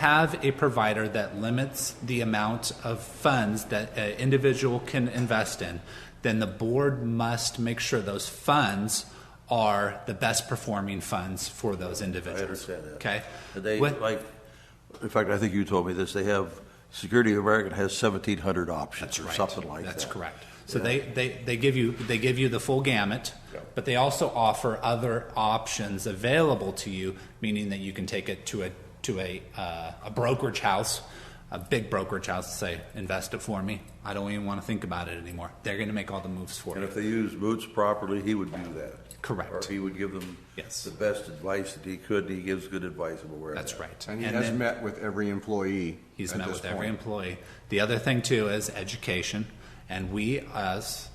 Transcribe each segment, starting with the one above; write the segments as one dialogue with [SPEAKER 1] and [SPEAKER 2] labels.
[SPEAKER 1] have a provider that limits the amount of funds that an individual can invest in, then the board must make sure those funds are the best performing funds for those individuals.
[SPEAKER 2] understand that.
[SPEAKER 1] Okay?
[SPEAKER 2] And They,
[SPEAKER 1] What-
[SPEAKER 2] like, in fact, I think you told me this, they have, Security of America has seventeen hundred options
[SPEAKER 1] That's
[SPEAKER 2] or
[SPEAKER 1] right.
[SPEAKER 2] something like that.
[SPEAKER 1] That's correct. So they, they, they give you they give you the full gamut, but they also offer other options available to you, meaning that you can take it to a to a uh, a brokerage house, a big brokerage house, and say invest it for me. I don't even want to think about it anymore. They're going to make all the moves for
[SPEAKER 2] And
[SPEAKER 1] you.
[SPEAKER 2] if they use Moots properly, he would do that.
[SPEAKER 1] Correct.
[SPEAKER 2] Or he would give them
[SPEAKER 1] Yes.
[SPEAKER 2] the best advice that he could, and he gives good advice, I'm aware of
[SPEAKER 1] That's
[SPEAKER 2] that.
[SPEAKER 1] right.
[SPEAKER 3] And he
[SPEAKER 1] And
[SPEAKER 3] has
[SPEAKER 1] then-
[SPEAKER 3] met with every employee.
[SPEAKER 1] He's
[SPEAKER 3] at
[SPEAKER 1] met
[SPEAKER 3] this
[SPEAKER 1] with every
[SPEAKER 3] point.
[SPEAKER 1] employee. The other thing too is education, and we, as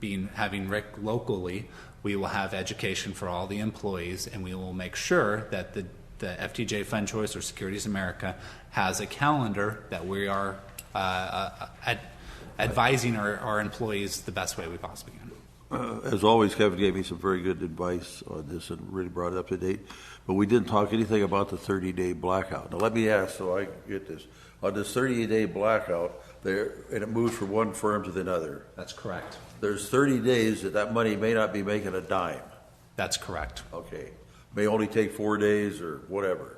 [SPEAKER 1] being having Rick locally, we will have education for all the employees, and we will make sure that the the FTJ Fund Choice or Securities America has a calendar that we are uh, uh, ad- advising our, our employees the best way we possibly can.
[SPEAKER 2] Uh, As always, Kevin gave me some very good advice on this and really brought it up to date. But we didn't talk anything about the 30-day blackout. Now, let me ask, so I get this. On this 30-day blackout, there, and it moves from one firm to the other,
[SPEAKER 1] That's correct.
[SPEAKER 2] there's 30 days that that money may not be making a dime,
[SPEAKER 1] That's correct.
[SPEAKER 2] okay? May only take four days or whatever.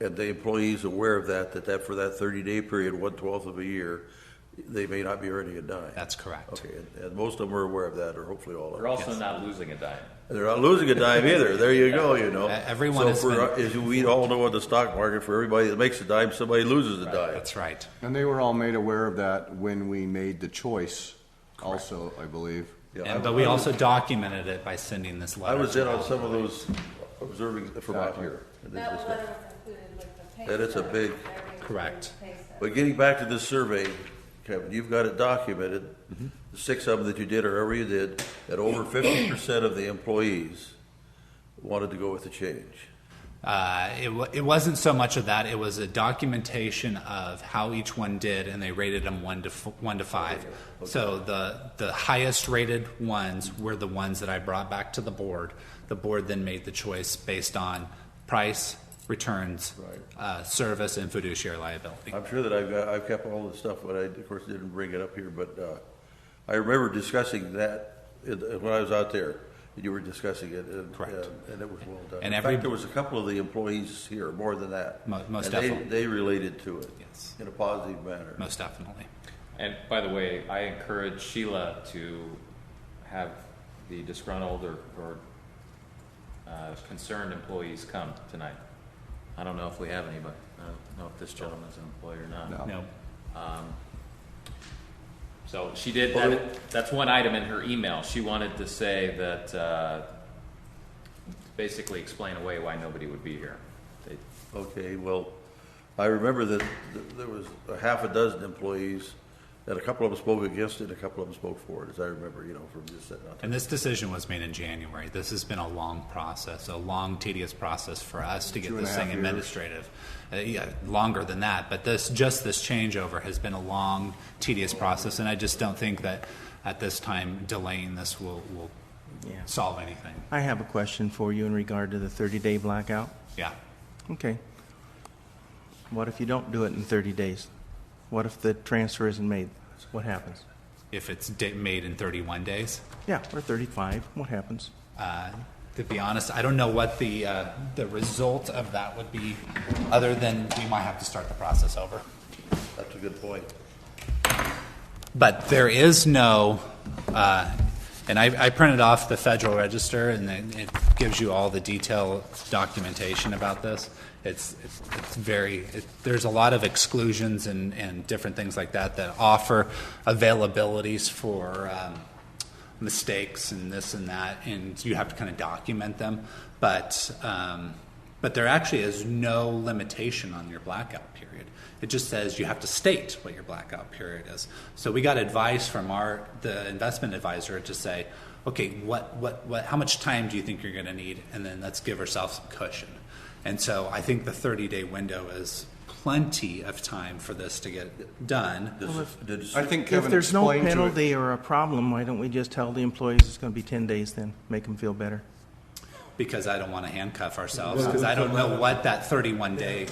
[SPEAKER 2] And the employee's aware of that, that that for that 30-day period, one-twelfth of a year, they may not be earning a dime.
[SPEAKER 1] That's correct.
[SPEAKER 2] Okay, and- and most of them are aware of that, or hopefully all of them.
[SPEAKER 4] We're also not losing a dime.
[SPEAKER 2] They're not losing a dime either. There you go, you know.
[SPEAKER 1] Uh, everyone
[SPEAKER 2] so
[SPEAKER 1] has
[SPEAKER 2] for,
[SPEAKER 1] been-
[SPEAKER 2] as we all know in the stock market, for everybody that makes a dime, somebody loses a dime.
[SPEAKER 1] That's right.
[SPEAKER 3] And they were all made aware of that when we made the choice, also, I believe.
[SPEAKER 2] Yeah, I-
[SPEAKER 1] And, but we
[SPEAKER 2] I was-
[SPEAKER 1] also documented it by sending this
[SPEAKER 2] I
[SPEAKER 1] letter.
[SPEAKER 2] was
[SPEAKER 1] to
[SPEAKER 2] in
[SPEAKER 1] all
[SPEAKER 2] on
[SPEAKER 1] of
[SPEAKER 2] some of those observing from out here. And this
[SPEAKER 5] That
[SPEAKER 2] is-
[SPEAKER 5] letter was included with the pay
[SPEAKER 2] That is a
[SPEAKER 5] stub.
[SPEAKER 2] big-
[SPEAKER 5] Every
[SPEAKER 1] Correct.
[SPEAKER 5] pay stub.
[SPEAKER 2] But getting back to this survey, Kevin, you've got it documented.
[SPEAKER 1] Mm-hmm.
[SPEAKER 2] The six of them that you did, or however you did, that over fifty percent of the employees wanted to go with the change.
[SPEAKER 1] Uh, it, wa it wasn't so much of that. It was a documentation of how each one did, and they rated them one to f- one to five. So the the highest rated ones were the ones that I brought back to the board. The board then made the choice based on price, returns, uh, service, and fiduciary liability.
[SPEAKER 2] I'm sure that I've, got- I've kept all the stuff, but I, of course, didn't bring it up here, but, uh, I remember discussing that in- when I was out there, and you were discussing it, and, uh,
[SPEAKER 1] Correct.
[SPEAKER 2] and it was well done.
[SPEAKER 1] And
[SPEAKER 2] In
[SPEAKER 1] every-
[SPEAKER 2] fact, there was a couple of the employees here, more than that.
[SPEAKER 1] Mo- most
[SPEAKER 2] and they-
[SPEAKER 1] definitely.
[SPEAKER 2] They related to it.
[SPEAKER 1] Yes.
[SPEAKER 2] In a positive manner.
[SPEAKER 1] Most definitely.
[SPEAKER 4] And by the way, I encourage Sheila to have the disgruntled or, or uh, concerned employees come tonight. I don't know if we have any, but I don't know if this gentleman's an employee or not.
[SPEAKER 3] No.
[SPEAKER 1] No.
[SPEAKER 4] So she did, that, that's one item in her email. She wanted to say that, uh, basically explain away why nobody would be here. They-
[SPEAKER 2] Okay, well, I remember that th- there was a half a dozen employees, and a couple of them spoke against it, a couple of them spoke for it, as I remember, you know, from just sitting out there.
[SPEAKER 1] And this decision was made in January. This has been a long process, a long, tedious process for us to get
[SPEAKER 3] Two and a
[SPEAKER 1] this thing
[SPEAKER 3] half years.
[SPEAKER 1] administrative. Uh, yeah, longer than that, but this, just this changeover has been a long, tedious process, and I just don't think that at this time delaying this will, will
[SPEAKER 6] Yeah.
[SPEAKER 1] solve anything.
[SPEAKER 6] I have a question for you in regard to the 30-day blackout.
[SPEAKER 1] Yeah.
[SPEAKER 6] Okay. What if you don't do it in 30 days? What if the transfer isn't made? What happens?
[SPEAKER 1] If it's da- made in 31 days.
[SPEAKER 6] Yeah, or 35, what happens?
[SPEAKER 1] Uh, To be honest, I don't know what the, uh, the result of that would be, other than we might have to start the process over.
[SPEAKER 2] That's a good point.
[SPEAKER 1] But there is no, uh, and I I printed off the Federal Register, and then it gives you all the detailed documentation about this. It's it's it's very, it- there's a lot of exclusions and and different things like that that offer availabilities for um, mistakes and this and that, and you have to kind of document them. But, um, but there actually is no limitation on your blackout period. It just says you have to state what your blackout period is. So we got advice from our the investment advisor to say, okay, what what what? How much time do you think you're going to need? And then let's give ourselves some cushion. And so I think the 30 day window is plenty of time for this to get done.
[SPEAKER 2] Does- did-
[SPEAKER 3] I think
[SPEAKER 6] If
[SPEAKER 3] Kevin
[SPEAKER 6] there's no
[SPEAKER 3] explained to it.
[SPEAKER 6] penalty or a problem, why don't we just tell the employees it's going to be 10 days then? Make them feel better.
[SPEAKER 1] because I don't want to handcuff ourselves, because I don't know what that 31-day